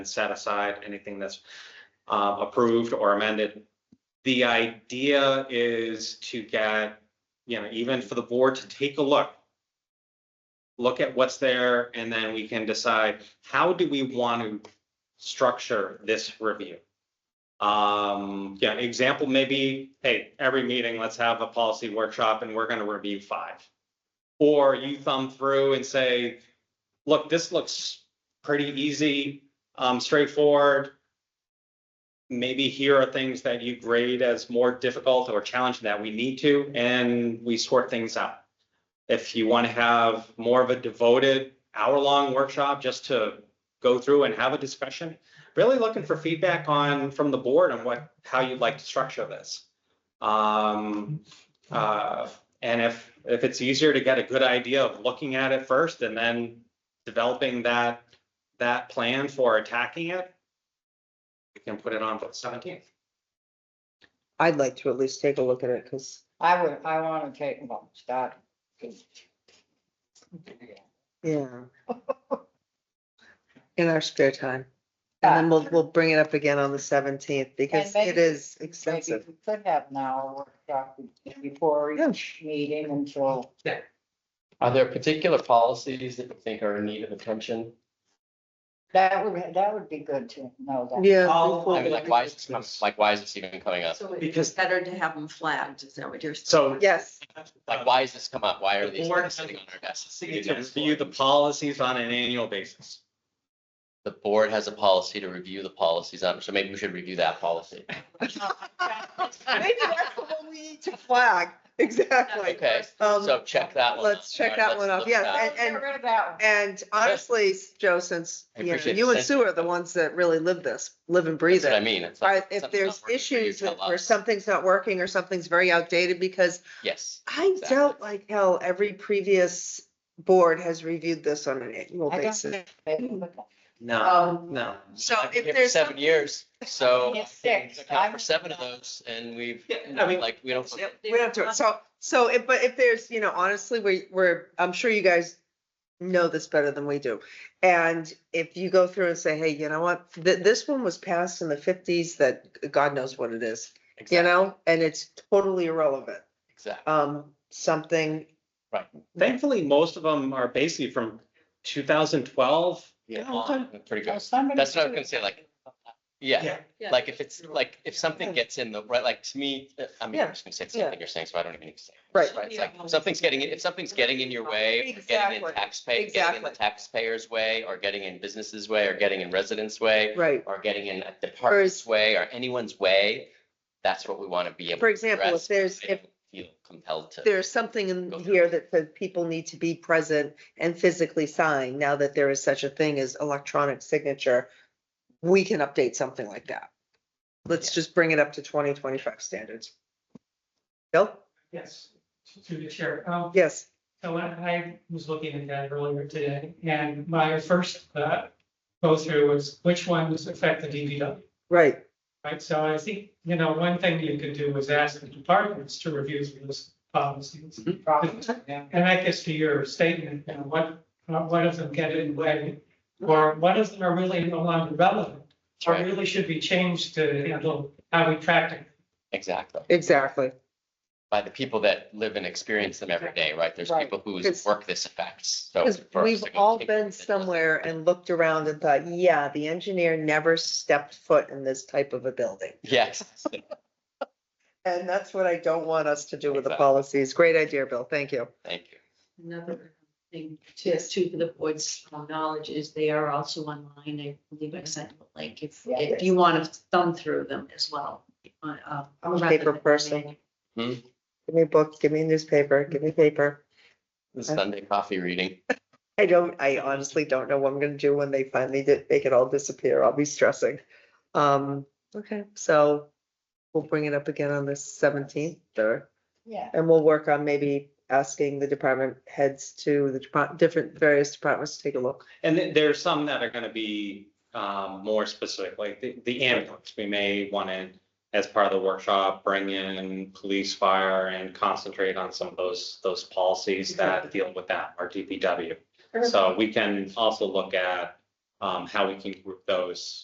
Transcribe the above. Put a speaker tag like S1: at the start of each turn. S1: set aside anything that's uh, approved or amended. The idea is to get, you know, even for the board to take a look. Look at what's there and then we can decide, how do we want to structure this review? Um, yeah, example maybe, hey, every meeting, let's have a policy workshop and we're gonna review five. Or you thumb through and say, look, this looks pretty easy, um, straightforward. Maybe here are things that you grade as more difficult or challenging that we need to, and we sort things out. If you want to have more of a devoted hour-long workshop just to go through and have a discussion, really looking for feedback on, from the board on what, how you'd like to structure this. Um, uh, and if, if it's easier to get a good idea of looking at it first and then developing that, that plan for attacking it, we can put it on for the seventeenth.
S2: I'd like to at least take a look at it, because,
S3: I would, I wanna take, well, start.
S2: yeah. In our spare time. And then we'll, we'll bring it up again on the seventeenth, because it
S3: maybe-
S2: is
S3: Maybe
S2: expensive.
S3: we could have now a workshop before each meeting until,
S4: Are there particular policies that you think are in need of attention?
S3: that would, that would be good to know that.
S2: Yeah.
S1: I'll-
S2: we'll-
S4: I mean, like, why is this, like, why is this even coming up?
S5: So
S1: Because-
S5: it's better to have them flagged, is that what you're saying?
S1: So.
S2: Yes,
S4: Like, why is this come up? Why are
S1: The
S4: these
S1: board
S4: things
S1: has
S4: sitting on our desks?
S1: City to review the policies on an annual basis.
S4: The board has a policy to review the policies on, so maybe we should review that policy.
S2: maybe that's the one we need to flag, exactly.
S4: Okay,
S2: Um,
S4: so check that one.
S2: Let's
S4: off.
S2: check
S4: All
S2: that
S4: right,
S2: one
S4: let's
S2: off.
S4: look
S2: Yes,
S4: at
S2: and-
S3: Get rid of that one.
S2: And honestly, Joe, since,
S4: I
S2: you know,
S4: appreciate
S2: you
S4: the
S2: and Sue are the ones that really live this, live and breathe
S4: That's what I
S2: it.
S4: mean. It's
S2: Are-
S4: like,
S2: If
S4: something's not
S2: there's
S4: working for you,
S2: issues
S4: tell
S2: or
S4: us.
S2: something's not working or something's very outdated, because
S4: Yes,
S2: I
S4: Exactly.
S2: doubt like hell every previous board has reviewed this on an annual
S3: I don't
S2: basis.
S3: think they would.
S1: No,
S5: Um,
S1: no.
S2: So
S4: I've been
S2: if
S4: here for
S2: there's.
S4: Seven years, so.
S3: Yes, six.
S4: I've accounted
S3: I'm-
S4: For seven of those and we've,
S1: Yeah, I mean-
S4: like, we don't.
S2: some- Yep, We don't have to, so, so if, but if there's, you know, honestly, we, we're, I'm sure you guys know this better than we do. And if you go through and say, hey, you know what, th- this one was passed in the fifties that God knows what it is, you know, and it's totally irrelevant.
S4: Exactly.
S2: Um, something,
S1: Thankfully, most of them are basically from two thousand twelve.
S4: Yeah,
S2: okay.
S4: on, pretty
S3: So
S4: good.
S3: somebody
S4: That's what I was
S3: should-
S4: gonna say, like, Yeah,
S5: Yeah.
S4: like if it's, like, if something gets in the, right, like, to me, uh, I mean,
S2: Yeah,
S4: I'm just gonna say
S2: yeah.
S4: something you're saying, so I don't even need to say. it,
S2: Right.
S4: Right, it's like, if something's getting, if something's getting in your way, or getting
S2: Exactly,
S4: in taxpayer, getting in the
S2: exactly.
S4: taxpayer's way, or getting in business's way, or getting in residents' way,
S2: right?
S4: or getting in a department's way, or anyone's way, that's what we wanna be able.
S2: For
S4: to
S2: example, if
S4: address,
S2: there's,
S4: but I
S2: if
S4: don't Feel compelled to.
S2: there's something in
S4: Go through
S2: here
S4: it.
S2: that says people need to be present and physically sign, now that there is such a thing as electronic signature, we can update something like that. Let's
S4: Yeah.
S2: just bring it up to twenty twenty-five standards. Bill?
S6: Yes, to the chair. Um,
S2: Yes,
S6: So when I was looking at that earlier today, and my first uh, go through was which ones affect the DPW,
S2: right,
S6: right? So I think, you know, one thing you could do was ask the departments to review those policies.
S3: Yeah.
S6: And that gets to your statement, you know, what, uh, what of them get in the way? Or what of them are really no longer relevant? Or
S4: Right.
S6: really should be changed to handle how we practice.
S4: Exactly,
S2: exactly.
S4: by the people that live and experience them every day, right? There's
S3: Right.
S4: people whose
S2: It's-
S4: work this affects, so.
S2: Because
S4: for us
S2: we've
S4: to go
S2: all
S4: take
S2: been
S4: this-
S2: somewhere and looked around and thought, yeah, the engineer never stepped foot in this type of a building.
S4: Yes.
S2: And that's what I don't want us to do with the
S4: Exactly.
S2: policies. Great idea, Bill, thank you.
S4: Thank you.
S5: Another thing, just too, for the board's knowledge is they are also online. I believe I sent a link if,
S3: Yeah.
S5: if you want to thumb through them as well. on, uh,
S2: I'm a
S5: rather
S2: paper
S5: than
S2: person.
S5: reading.
S2: Give me a book, give me a newspaper, give me paper.
S4: The
S2: Okay.
S4: Sunday coffee reading.
S2: I don't, I honestly don't know what I'm gonna do when they finally did, make it all disappear. I'll be stressing. Um, okay, so we'll bring it up again on the seventeenth or,
S3: Yeah.
S2: and we'll work on maybe asking the department heads to the depart- different, various departments to take a look.
S1: And th- there's some that are gonna be um more specific, like the the ambulance, we may wanna, as part of the workshop, bring in police, fire, and concentrate on some of those, those policies that deal with that, our DPW. So we can also look at um, how we can group those